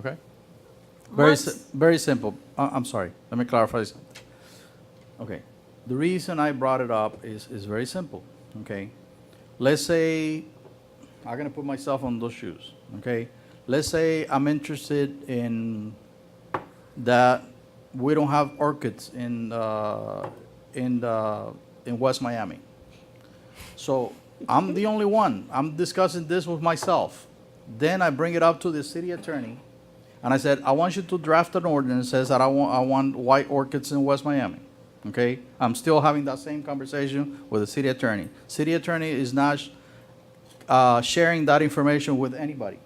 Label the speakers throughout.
Speaker 1: okay? Very, si-
Speaker 2: Once-
Speaker 1: very simple. I- I'm sorry, let me clarify something. Okay, the reason I brought it up is, is very simple, okay? Let's say, I'm gonna put myself on those shoes, okay? Let's say I'm interested in that we don't have orchids in, uh, in, the in West Miami. So I'm the only one. I'm discussing this with myself. Then I bring it up to the city attorney, and I said, I want you to draft an ordinance that says that I want, I want white orchids in West Miami. Okay? I'm still having that same conversation with the city attorney. City attorney is not sh- uh, sharing that information with anybody.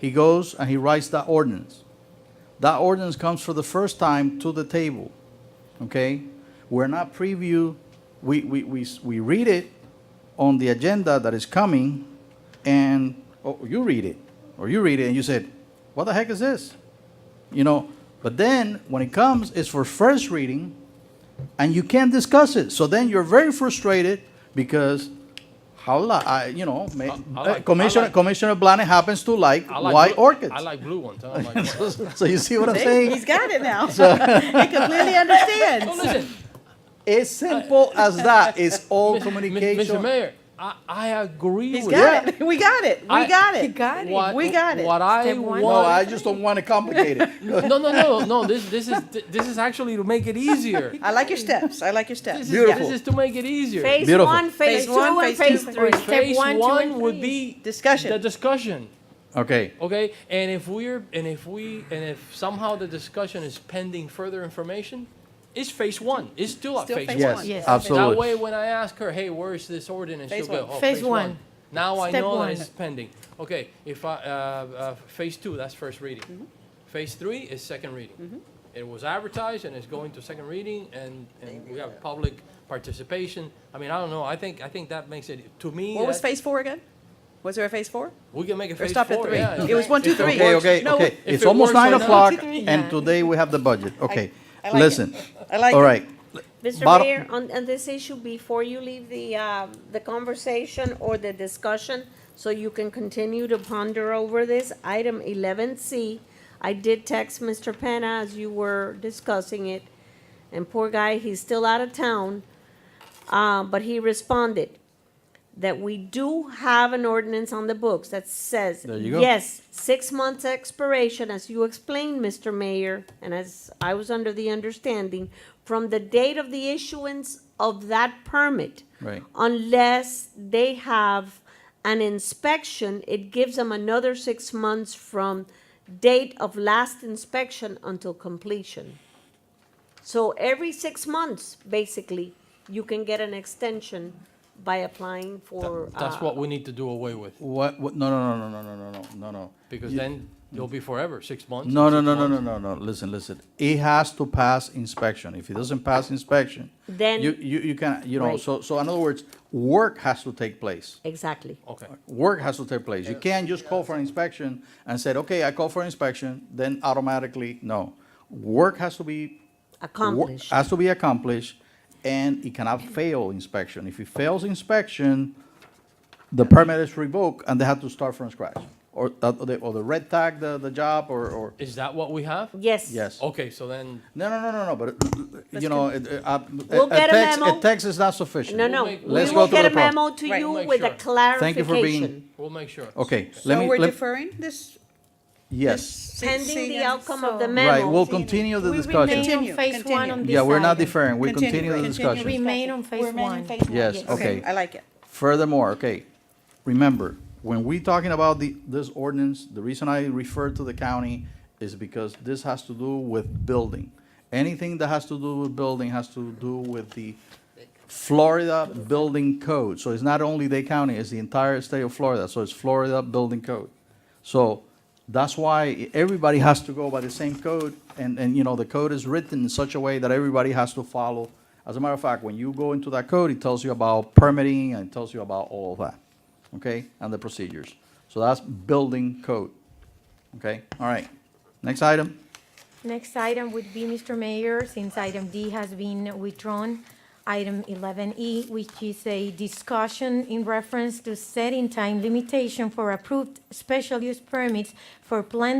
Speaker 1: He goes and he writes that ordinance. That ordinance comes for the first time to the table, okay? We're not preview, we, we, we, s- we read it on the agenda that is coming, and, oh, you read it, or you read it and you said, what the heck is this? You know, but then, when it comes, it's for first reading, and you can't discuss it, so then you're very frustrated because how, la- I, you know, eh, ma-
Speaker 3: Uh, I like- I
Speaker 1: Commissioner,
Speaker 3: like-
Speaker 1: Commissioner Blanes happens to like
Speaker 3: I like
Speaker 1: white
Speaker 3: blue-
Speaker 1: orchids.
Speaker 3: I like blue ones. I don't like white.
Speaker 1: So you see what I'm
Speaker 2: See,
Speaker 1: saying?
Speaker 2: He's got it now. He completely understands.
Speaker 3: Listen,
Speaker 1: It's simple as that. It's all
Speaker 3: Mis- Mr.
Speaker 1: communication.
Speaker 3: Mayor, I, I agree
Speaker 2: He's
Speaker 3: with
Speaker 2: got
Speaker 3: you.
Speaker 2: it. We got it. We
Speaker 3: I-
Speaker 2: got
Speaker 4: He
Speaker 2: it.
Speaker 4: got it.
Speaker 3: What-
Speaker 2: We got it.
Speaker 3: What I
Speaker 4: Step
Speaker 3: want.
Speaker 4: one.
Speaker 1: No, I just don't want to complicate it.
Speaker 3: no, no, no, no. This, this is, this is actually to make it easier.
Speaker 2: I like your steps. I like your
Speaker 3: This
Speaker 2: steps.
Speaker 3: is,
Speaker 1: Beautiful.
Speaker 3: This is to make it easier.
Speaker 4: Phase
Speaker 1: Beautiful.
Speaker 4: one, phase,
Speaker 2: Phase
Speaker 4: two,
Speaker 2: one, phase
Speaker 4: and phase,
Speaker 2: two,
Speaker 4: three.
Speaker 2: phase
Speaker 4: Step
Speaker 3: Phase
Speaker 4: one, two, and three.
Speaker 3: would be
Speaker 2: Discussion.
Speaker 3: the discussion.
Speaker 1: Okay,
Speaker 3: Okay, and if we're and if we and if somehow the discussion is pending further information, it's phase one. It's still at
Speaker 2: Still
Speaker 3: phase
Speaker 2: phase
Speaker 3: one.
Speaker 2: one.
Speaker 1: yes,
Speaker 4: Yes.
Speaker 3: That
Speaker 1: absolutely.
Speaker 3: way, when I ask her, hey, where's this ordinance?
Speaker 2: Phase
Speaker 3: She'll go,
Speaker 2: one.
Speaker 3: "Oh,
Speaker 4: Phase one.
Speaker 3: Now I
Speaker 4: Step
Speaker 3: know
Speaker 4: one.
Speaker 3: that it's pending. Okay, if I, uh, uh, phase two, that's first
Speaker 2: Mm-hmm.
Speaker 3: reading. Phase three is second reading. It was advertised and it's going to second reading and, and we have public participation. I mean, I don't know, I think, I think that makes it, to me,
Speaker 2: What was
Speaker 3: that-
Speaker 2: phase four again? Was there a phase four?
Speaker 3: we can make it
Speaker 2: Or
Speaker 3: phase
Speaker 2: stopped at
Speaker 3: four,
Speaker 2: three?
Speaker 3: yeah.
Speaker 2: It was one, two,
Speaker 3: If it
Speaker 2: three.
Speaker 1: Okay,
Speaker 3: works.
Speaker 1: okay,
Speaker 2: No,
Speaker 1: okay.
Speaker 3: if
Speaker 1: It's
Speaker 3: it
Speaker 1: almost
Speaker 3: works
Speaker 1: nine
Speaker 3: or not.
Speaker 1: o'clock,
Speaker 4: Yeah.
Speaker 1: and today we have the budget. Okay,
Speaker 2: I like it.
Speaker 1: listen.
Speaker 2: I like
Speaker 1: All
Speaker 2: it.
Speaker 1: right,
Speaker 4: Mr.
Speaker 1: Bottom-
Speaker 4: Mayor, on, on this issue, before you leave the, um, the conversation or the discussion, so you can continue to ponder over this, item eleven C, I did text Mr. Penna as you were discussing it, and poor guy, he's still out of town, uh, but he responded that we do have an ordinance on the books that says,
Speaker 1: There you go.
Speaker 4: yes, six months expiration, as you explained, Mr. Mayor, and as I was under the understanding, from the date of the issuance of that permit.
Speaker 1: Right.
Speaker 4: Unless they have an inspection, it gives them another six months from date of last inspection until completion. So every six months, basically, you can get an extension by applying for.
Speaker 3: That's
Speaker 4: uh,
Speaker 3: what we need to do away with,
Speaker 1: what, what, no, no, no, no, no, no, no, no, no.
Speaker 3: because
Speaker 1: You-
Speaker 3: then you'll be forever, six months.
Speaker 1: No, no,
Speaker 3: six
Speaker 1: no, no,
Speaker 3: months.
Speaker 1: no, no, no, listen, listen. It has to pass inspection. If it doesn't pass inspection,
Speaker 4: Then-
Speaker 1: you, you, you can, you know,
Speaker 4: Right.
Speaker 1: so, so in other words, work has to take place.
Speaker 4: Exactly.
Speaker 3: Okay.
Speaker 1: work has to take place. You can't just call for an inspection and said, okay, I call for an inspection, then automatically, no. Work has to be. wor-
Speaker 4: Accomplished.
Speaker 1: Has to be accomplished, and it cannot fail inspection. If it fails inspection, the permit is revoked and they have to start from scratch. Or, uh, or the, or the red tag the, the job, or, or,
Speaker 3: Is that what we have?
Speaker 4: Yes.
Speaker 1: yes.
Speaker 3: Okay, so then
Speaker 1: No, no, no, no, no, but, uh, you know, it, it, uh,
Speaker 4: We'll
Speaker 1: a- a
Speaker 4: get a
Speaker 1: text, a
Speaker 4: memo.
Speaker 1: text is not sufficient.
Speaker 4: No, no,
Speaker 3: make-
Speaker 4: we
Speaker 1: Let's go
Speaker 4: will
Speaker 1: through
Speaker 4: get a
Speaker 1: the pro-
Speaker 4: memo to
Speaker 2: Right.
Speaker 4: you
Speaker 3: Make
Speaker 4: with a
Speaker 3: sure.
Speaker 1: Thank you for being-
Speaker 4: clarification.
Speaker 3: we'll make sure.
Speaker 1: Okay, let
Speaker 2: So
Speaker 1: me,
Speaker 2: we're
Speaker 1: let,
Speaker 2: deferring this?
Speaker 1: yes,
Speaker 4: Pending the outcome of the
Speaker 5: So-
Speaker 4: memo.
Speaker 1: right, we'll continue the
Speaker 5: We
Speaker 1: discussion.
Speaker 5: remain
Speaker 2: Continue,
Speaker 5: on phase one
Speaker 2: continue.
Speaker 5: on this
Speaker 1: Yeah, we're not
Speaker 5: item.
Speaker 1: deferring, we continue the discussion.
Speaker 5: continue.
Speaker 4: Remain on phase
Speaker 5: Remain
Speaker 4: one.
Speaker 5: in phase one.
Speaker 1: Yes,
Speaker 2: Okay,
Speaker 1: Okay.
Speaker 2: I like it.
Speaker 1: Furthermore, okay, remember, when we talking about the, this ordinance, the reason I refer to the county is because this has to do with building. Anything that has to do with building has to do with the Florida Building Code. So it's not only Dade County, it's the entire state of Florida, so it's Florida Building Code. So that's why everybody has to go by the same code, and, and, you know, the code is written in such a way that everybody has to follow. As a matter of fact, when you go into that code, it tells you about permitting, and it tells you about all of that, okay? And the procedures. So that's building code, okay? All right, next item.
Speaker 5: Next item would be, Mr. Mayor, since item D has been withdrawn, item 11E, which is a discussion in reference to setting time limitation for approved special use permits for planned